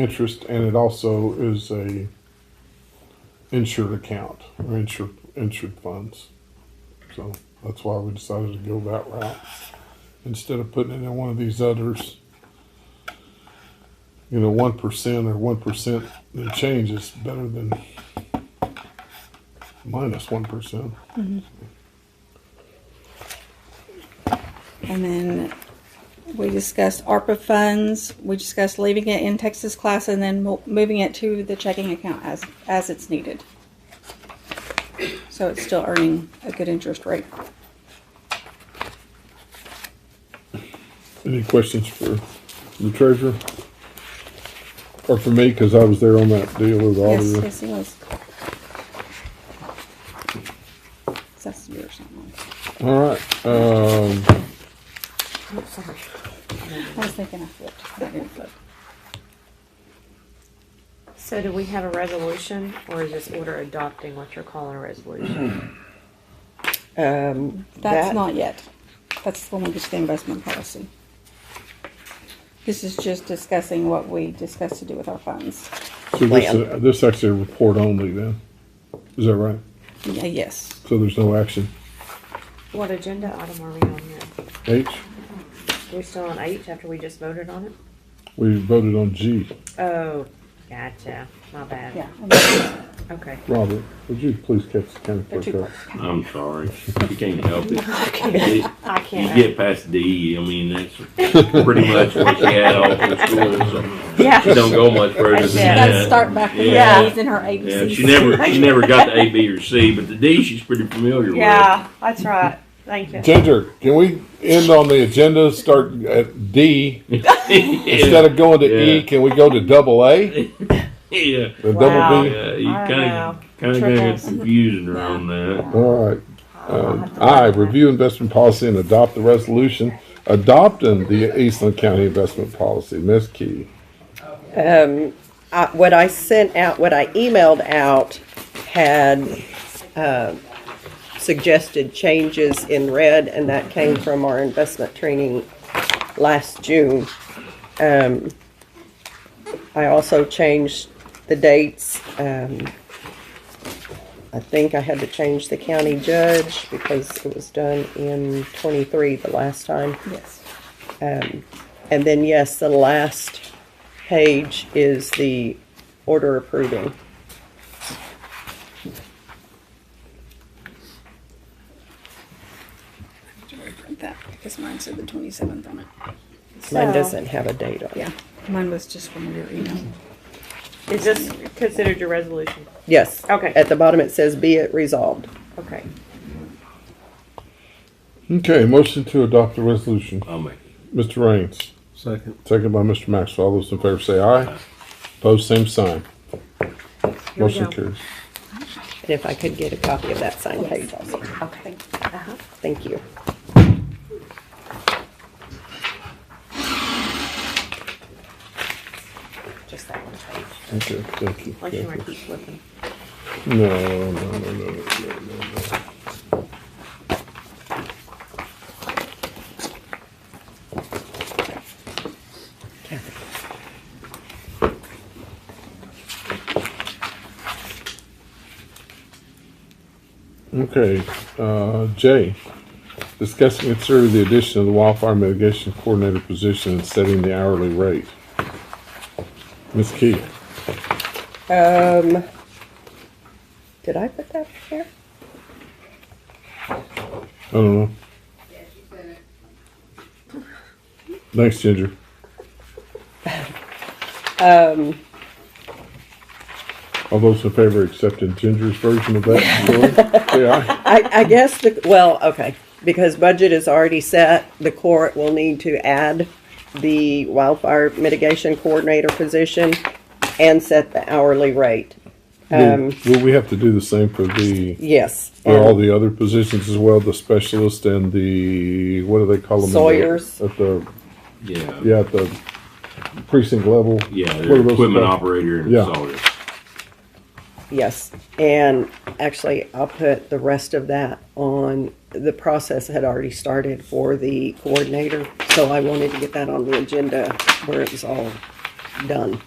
interest, and it also is a insured account or insured insured funds. So that's why we decided to go that route instead of putting it in one of these others. You know, one percent or one percent the change is better than minus one percent. And then we discussed ARPA funds. We discussed leaving it in Texas class and then mo- moving it to the checking account as, as it's needed. So it's still earning a good interest rate. Any questions for the treasurer? Or for me, because I was there on that deal with the Yes, auditor. yes, it was. That's yours. something. All right, um, Oh, sorry. I was thinking I flipped. I didn't flip. So do we have a resolution or is this order adopting what you're calling a resolution? Um, That's that- not yet. That's when we get to the investment policy. This is just discussing what we discussed to do with our funds. so this, Plan. uh, this actually a report only then, is that right? Yeah, Yes. So there's no action. What agenda item are we on here? H, Are we still on H after we just voted on it? we voted on G. Oh, gotcha. My bad. Yeah. Okay. Robert, would you please catch the county They're clerk too up? I'm sorry, you can't help it. It- I You can't. get past D, I mean, that's pretty much what she had all through school, so she Yeah. don't go much further That's than it. that. Let's start back with Yeah. the A's and her A, B, Yeah, C's. she never, she never got the A, B, or C, but the D, she's pretty familiar with. Yeah, that's right. Thank you. Ginger, can we end on the agenda, start at D, instead of going to E, Yeah. can we go to double A? Yeah, The Wow. double B? yeah, you I don't know. kinda, kinda got Trickles. confusing her on that. All right, Uh, I'll have to look I at that. review investment policy and adopt the resolution adopting the Eastland County investment policy. Ms. Key. um, I, what I sent out, what I emailed out had, um suggested changes in red, and that came from our investment training last June. Um, I also changed the dates, um, I think I had to change the county judge because it was done in twenty-three the last time. Um, Yes. And then, yes, the last page is the order approving. Do I print that? Because mine said the 27th on it. Mine So- doesn't have a date on it. Yeah. Mine was just from your email. Is this considered your resolution? Yes. Okay. At the bottom, it says, "Be it resolved." Okay. Okay, motion to adopt the resolution. I'll make it. Mr. Raines. Second. Second by Mr. Maxwell. All those in favor say aye. Opposed, same sign. Here we Motion go. carries. And if I could get a copy of that signed page also. Okay. Uh-huh. Thank you. Just that one page. Okay, thank you. Unless you want thank to keep flipping. you. No, no, no, no, no, no, no. Okay, uh, Jay, discuss and consider the addition of the wildfire mitigation coordinator position and setting the hourly rate. Ms. Key, Um, did I put that here? I don't know. Thanks, Ginger. Um, All those in favor of accepting Ginger's version of that, story, say aye. I, I guess the, well, okay, because budget is already set, the court will need to add the wildfire mitigation coordinator position and set the hourly rate. Will Um, will we have to do the same for the, yes. for all the other positions as well, the specialist and the, what do they call them? in the- Sawyers. At the, Yeah. yeah, at the precinct level. Yeah, What they're are those equipment called? operator and Yeah. installer. Yes, and actually, I'll put the rest of that on, the process had already started for the coordinator, so I wanted to get that on the agenda where it was all done.